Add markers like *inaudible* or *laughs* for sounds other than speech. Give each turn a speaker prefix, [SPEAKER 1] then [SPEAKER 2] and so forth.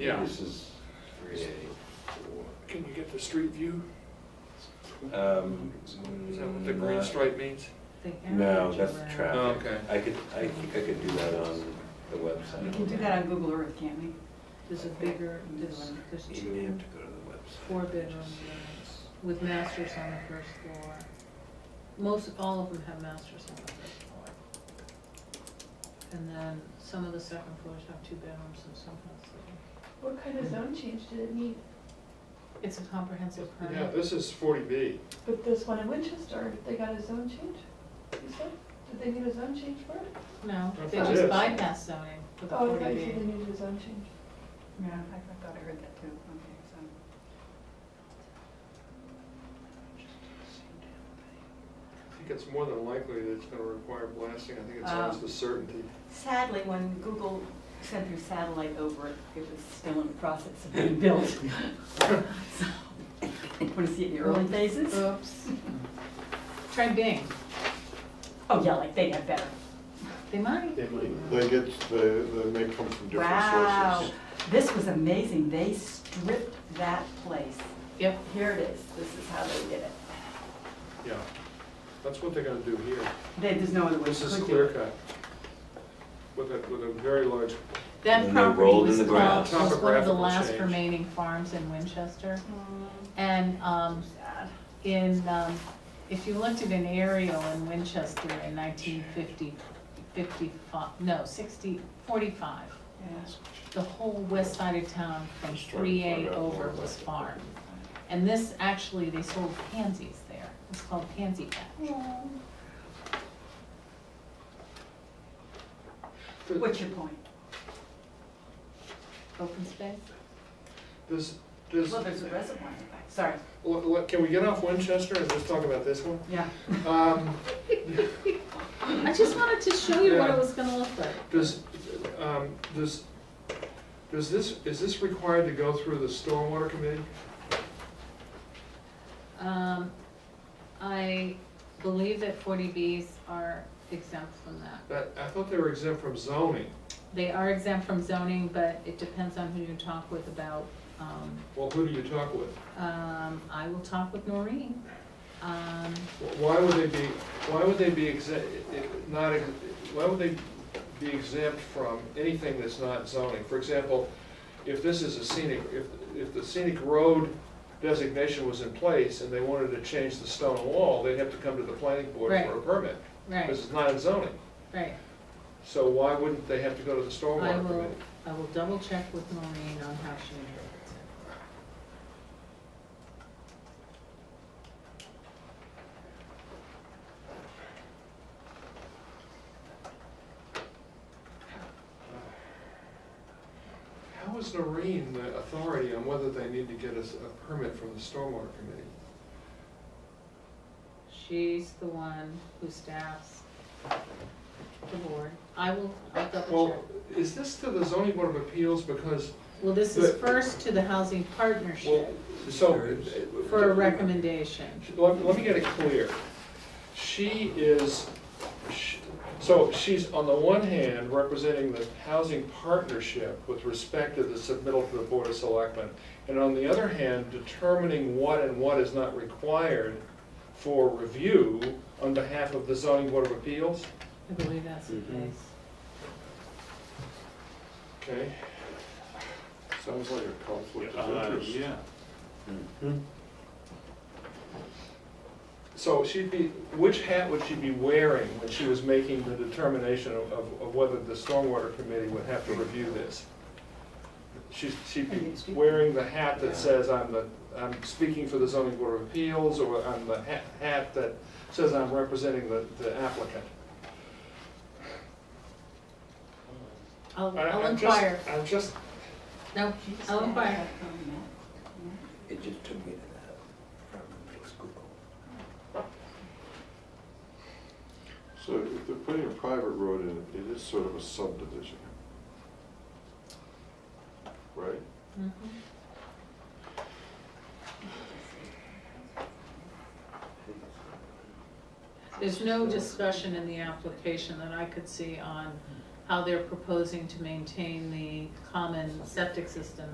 [SPEAKER 1] Yeah.
[SPEAKER 2] This is three eighty-four.
[SPEAKER 1] Can you get the street view?
[SPEAKER 2] Um.
[SPEAKER 1] Is that what the
[SPEAKER 3] Mm, uh,
[SPEAKER 1] green stripe means?
[SPEAKER 2] No, that's traffic.
[SPEAKER 1] Oh, okay.
[SPEAKER 2] I could, I think I could do that on the website.
[SPEAKER 4] We can do that on Google Earth, can't we?
[SPEAKER 5] There's a bigger, there's, there's
[SPEAKER 2] You may have to
[SPEAKER 5] two
[SPEAKER 2] go to the website.
[SPEAKER 5] four-bedroom units with masters on the first floor. Most, all of them have masters on the first floor. And then some of the second floors have two bedrooms and some have three.
[SPEAKER 6] What kind of zone change did it need?
[SPEAKER 5] It's a comprehensive
[SPEAKER 1] Yeah,
[SPEAKER 5] permit.
[SPEAKER 1] this is forty B.
[SPEAKER 6] But this one in Winchester, they got a zone change, you said? Did they need a zone change for it?
[SPEAKER 5] No,
[SPEAKER 1] That's
[SPEAKER 5] they
[SPEAKER 1] what it
[SPEAKER 5] just
[SPEAKER 1] is.
[SPEAKER 5] bypass zoning with a
[SPEAKER 6] Oh, I
[SPEAKER 5] forty
[SPEAKER 6] thought you
[SPEAKER 5] B.
[SPEAKER 6] said they needed a zone change.
[SPEAKER 4] Yeah, I I thought I heard that too. Okay, so.
[SPEAKER 1] I think it's more than likely that it's gonna require blasting. I think it's almost
[SPEAKER 4] Oh.
[SPEAKER 1] a
[SPEAKER 4] *laughs*
[SPEAKER 1] certainty.
[SPEAKER 4] Sadly, when Google sent their satellite over it, it was still in the process of being *laughs* built. So, Want to see it in the early phases?
[SPEAKER 5] Oops. Try Bing,
[SPEAKER 4] Oh, yeah, like they have better.
[SPEAKER 5] they might.
[SPEAKER 1] They might.
[SPEAKER 3] They get, they, they may come from different
[SPEAKER 4] Wow,
[SPEAKER 3] sources.
[SPEAKER 4] this was amazing. They stripped that place.
[SPEAKER 5] Yep.
[SPEAKER 4] Here it is. This is how they did it.
[SPEAKER 1] Yeah. That's what they're gonna do here.
[SPEAKER 4] They- There's no other way
[SPEAKER 1] This
[SPEAKER 4] to
[SPEAKER 1] is
[SPEAKER 4] do
[SPEAKER 1] clear
[SPEAKER 4] it.
[SPEAKER 1] cut. With a, with a very large,
[SPEAKER 5] That
[SPEAKER 2] And they
[SPEAKER 5] property
[SPEAKER 2] rolled in
[SPEAKER 5] was
[SPEAKER 2] the
[SPEAKER 5] called,
[SPEAKER 2] grass.
[SPEAKER 5] was one of the
[SPEAKER 1] Topographical
[SPEAKER 5] last
[SPEAKER 1] change.
[SPEAKER 5] remaining farms in Winchester.
[SPEAKER 4] Mm.
[SPEAKER 5] And, um, in, um, if you looked at an aerial in Winchester in 1950, 55, no, 60, 45, the whole west side of town from
[SPEAKER 3] Just trying to
[SPEAKER 5] 3A
[SPEAKER 3] find out more
[SPEAKER 5] over
[SPEAKER 3] about
[SPEAKER 5] was
[SPEAKER 3] that.
[SPEAKER 5] farm. And this, actually, they sold pansies there. It was called Pansy Patch.
[SPEAKER 4] What's your point?
[SPEAKER 5] Open space?
[SPEAKER 1] this, this,
[SPEAKER 4] Well, there's a reservoir in the back. Sorry,
[SPEAKER 1] Look, look, can we get off Winchester and just talk about this one?
[SPEAKER 4] yeah.
[SPEAKER 1] Um,
[SPEAKER 5] I just wanted to show you what
[SPEAKER 1] Yeah.
[SPEAKER 5] it was gonna look like.
[SPEAKER 1] Does, um, does, does this, is this required to go through the stormwater committee?
[SPEAKER 5] Um, I believe that forty Bs are exempt from that.
[SPEAKER 1] That, I thought they were exempt from zoning.
[SPEAKER 5] They are exempt from zoning, but it depends on who you talk with about, um,
[SPEAKER 1] Well, who do you talk with?
[SPEAKER 5] um, I will talk with Noreen. Um,
[SPEAKER 1] Why would they be, why would they be exempt, not, ex- why would they be exempt from anything that's not zoning? For example, if this is a scenic, if, if the scenic road designation was in place and they wanted to change the stone wall, they'd have to come to the planning board for a
[SPEAKER 5] Right.
[SPEAKER 1] permit.
[SPEAKER 5] right,
[SPEAKER 1] Because it's not in zoning.
[SPEAKER 5] right.
[SPEAKER 1] So why wouldn't they have to go to the
[SPEAKER 5] I
[SPEAKER 1] stormwater
[SPEAKER 5] will,
[SPEAKER 1] committee?
[SPEAKER 5] I will double check with Noreen on how she interprets it.
[SPEAKER 1] How is Noreen the authority on whether they need to get a, s- a permit from the stormwater committee?
[SPEAKER 5] She's the one who staffs the board. I will, I'll double check.
[SPEAKER 1] Well, is this to the zoning board of appeals because,
[SPEAKER 5] Well, this is
[SPEAKER 1] but-
[SPEAKER 5] first to the housing
[SPEAKER 1] well,
[SPEAKER 5] partnership
[SPEAKER 1] so.
[SPEAKER 5] for a recommendation.
[SPEAKER 1] Let, let me get it clear. She is, sh- so she's on the one hand representing the housing partnership with respect to the submittal to the Board of Selectmen, and on the other hand, determining what and what is not required for review on behalf of the zoning board of appeals,
[SPEAKER 5] I believe that's the case.
[SPEAKER 1] okay?
[SPEAKER 3] Sounds like a conflict
[SPEAKER 7] Uh,
[SPEAKER 3] of interest.
[SPEAKER 7] Yeah,
[SPEAKER 2] Hmm.
[SPEAKER 1] So she'd be, which hat would she be wearing when she was making the determination of, of of whether the stormwater committee would have to review this? She's, she'd be wearing the hat that says I'm the, I'm speaking for the zoning board of appeals, or I'm the ha- hat that says I'm representing the, the applicant.
[SPEAKER 5] I'll,
[SPEAKER 1] I-
[SPEAKER 5] I'll
[SPEAKER 1] I'm just-
[SPEAKER 5] inquire.
[SPEAKER 1] I'm just,
[SPEAKER 5] No, I'll inquire.
[SPEAKER 2] It just took me to that, from just Google.
[SPEAKER 3] So if they're putting a private road in, it is sort of a subdivision. Right?
[SPEAKER 5] Mhm. There's no discussion in the application that I could see on how they're proposing to maintain the common septic system